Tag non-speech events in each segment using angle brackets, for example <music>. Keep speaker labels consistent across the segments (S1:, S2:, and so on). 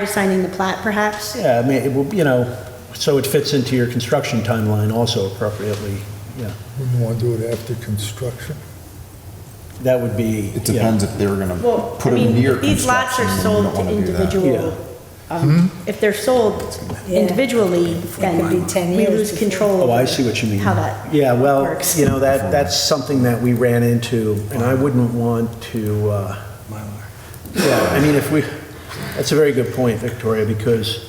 S1: to signing the plat perhaps?
S2: Yeah, I mean, it will, you know, so it fits into your construction timeline also appropriately.
S3: Wouldn't want to do it after construction.
S2: That would be.
S4: It
S2: yeah.
S4: depends if they were gonna
S1: Well, I
S4: put them near
S1: mean, these lots
S4: construction,
S1: are
S4: and you
S1: sold
S4: don't
S1: to
S4: wanna do that. Hmm?
S1: individual, um, if they're sold
S5: Yeah.
S1: individually, then
S5: could be 10
S1: we
S5: years
S1: lose
S5: before-
S1: control.
S2: Oh, I
S1: over
S2: see what you mean.
S1: How that.
S2: Yeah, well,
S1: works.
S2: you know, that, that's something that we ran into, and I wouldn't want to, uh, yeah, I mean, if we, that's a very good point, Victoria, because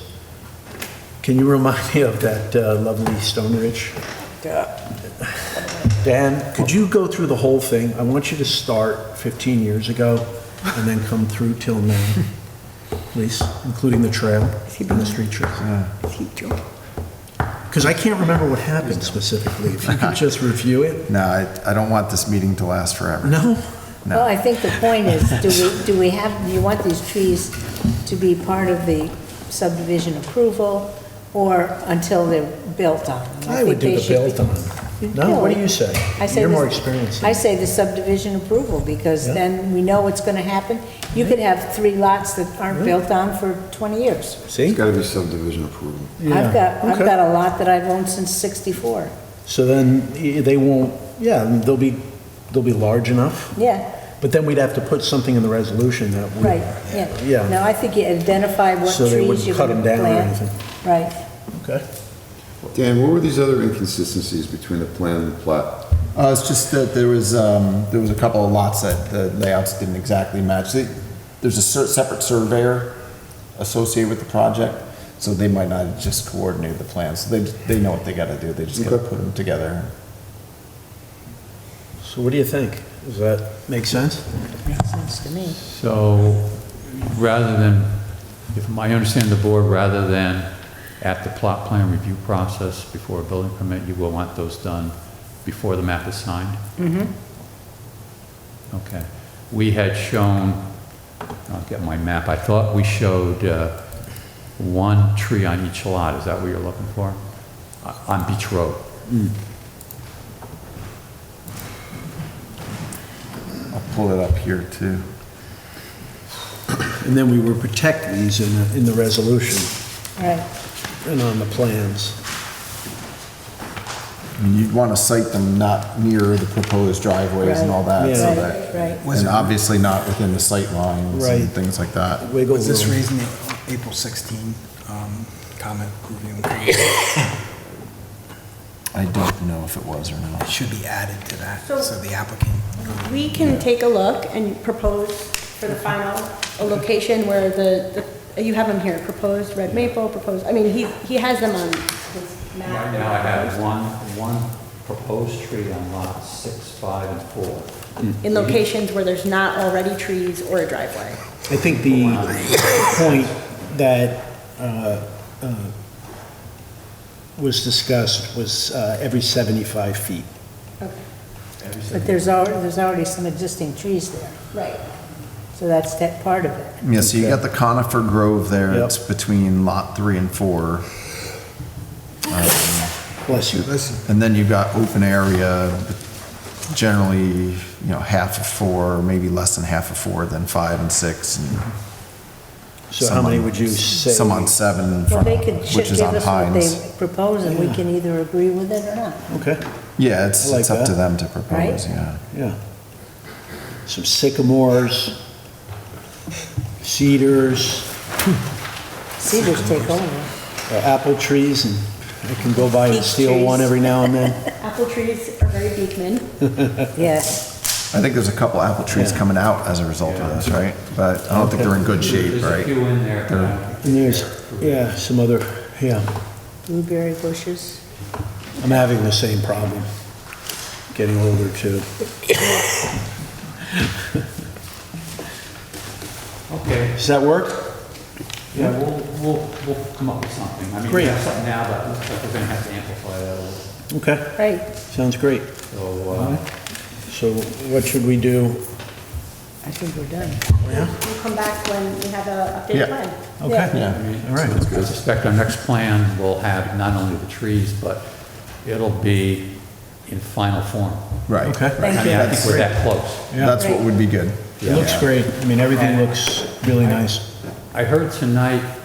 S2: can you remind me of that uh, lovely Stone Ridge? Dan, could you go through the whole thing? I want you to start 15 years ago and then come through till
S1: <laughs>
S2: now, please, including the trail and the street trees. Because I can't remember what happened specifically. If you could just review it?
S4: No, I, I don't want this meeting to last forever.
S2: No?
S5: Well, I think the point is, do we, do we have, do you want these trees to be part of the subdivision approval or until they're built on?
S2: I would
S5: think
S2: do
S5: they
S2: the
S5: should be-
S2: built on. No, what do you say?
S5: I say
S2: You're more
S5: this-
S2: experienced.
S5: I say the subdivision approval, because
S2: Yeah.
S5: then we know what's gonna happen. You could have three lots that aren't built on for 20 years.
S2: See?
S6: Got to be subdivision approval.
S2: Yeah,
S5: I've got, I've
S2: okay.
S5: got a lot that I've owned since 64.
S2: So then eh, they won't, yeah, they'll be, they'll be large enough,
S5: Yeah,
S2: but then we'd have to put something in the resolution that we.
S5: right, yeah.
S2: Yeah.
S5: No, I think you identify what
S2: So they
S5: trees
S2: wouldn't
S5: you're
S2: cut
S5: gonna
S2: them down or
S5: plant.
S2: anything.
S5: Right.
S2: Okay.
S6: Dan, what were these other inconsistencies between the plan and the plat?
S4: Uh, it's just that there was, um, there was a couple of lots that the layouts didn't exactly match. They- There's a cer- separate surveyor associated with the project, so they might not have just coordinate the plans. They, they know what they gotta do, they just gotta
S6: Okay.
S4: put them together.
S2: So what do you think? Does that make sense?
S5: Makes sense to me.
S7: So rather than, if I understand the board, rather than at the plot plan review process before a building permit, you will want those done before the map is signed? Mm-hmm. Okay. We had shown, I'll get my map, I thought we showed uh, one tree on each lot, is that what you're looking for? Uh, On Beach Road.
S4: I'll pull it up here too.
S2: And then we would protect these in, the- in the resolution
S5: Right.
S2: and on the plans.
S4: And You'd wanna site them not near the proposed driveways and all that, so
S2: Yeah.
S4: that.
S5: Right, right.
S4: And obviously not within the sight lines
S2: Right.
S4: and things like that.
S2: Wiggle
S8: Was this
S2: room.
S8: reason the April 16 um, comment reviewing
S4: I don't know if it was or not.
S8: should be added to that,
S1: So-
S8: so the applicant
S1: We can take a look and propose for the final, a location where the, the- you have them here, proposed red maple, proposed, I mean, he, he has them on his map.
S7: Right now, I have one, one proposed tree on lot six, five, and four.
S1: In locations where there's not already trees or a driveway.
S2: I think the point that uh, uh, was discussed was uh, every 75 feet.
S5: But there's already, there's already some existing trees there,
S1: Right.
S5: so that's that part of it.
S4: Yeah, so you got the conifer grove there,
S2: Yep.
S4: it's between lot three and four.
S2: Bless you.
S4: Um, And then you've got open area, generally, you know, half of four, maybe less than half of four, then five and six. and
S2: So how
S4: some
S2: many
S4: on-
S2: would you say?
S4: Some on seven in
S5: Well,
S4: front,
S5: they could sh-
S4: which
S5: give
S4: is on
S5: us what
S4: Hines.
S5: they propose, and we can either agree with it or not.
S2: Okay,
S4: Yeah, it's,
S2: I like
S4: it's up to
S2: that.
S4: them to propose,
S5: Right?
S4: yeah.
S2: yeah. Some sycamores, cedars,
S5: Cedars take over.
S2: uh, apple trees, and I can go by and
S1: Peach
S2: steal one
S1: trees.
S2: every now and
S4: <laughs>
S2: then.
S1: Apple trees are very Beekman.
S5: Yes,
S4: I think there's a couple apple trees
S2: Yeah.
S4: coming out as a result of this, right? But I don't think they're in good shape,
S7: There's a
S4: right?
S7: few in there. but I don't
S2: And
S7: think
S2: there's,
S7: they're-
S2: yeah, some other, yeah.
S5: blueberry bushes.
S2: I'm having the same problem, getting older too.
S7: Okay,
S2: Does that work?
S7: yeah, we'll, we'll, we'll come up with something. I mean, we
S2: Great.
S7: have something now, but it looks like we're gonna have to amplify that a little.
S2: Okay,
S5: Right,
S2: sounds great.
S7: So, uh,
S2: So what should we do?
S5: I think we're done.
S1: We'll come back when we have a
S4: Yeah.
S1: updated plan.
S2: Okay,
S4: Yeah.
S7: I mean,
S2: All right.
S7: I suspect our next plan will have not only the trees, but it'll be in final form.
S4: Right.
S2: okay.
S7: I mean, I think we're that close.
S4: That's what would be good.
S2: It looks great. I mean, everything looks really nice.
S7: I heard tonight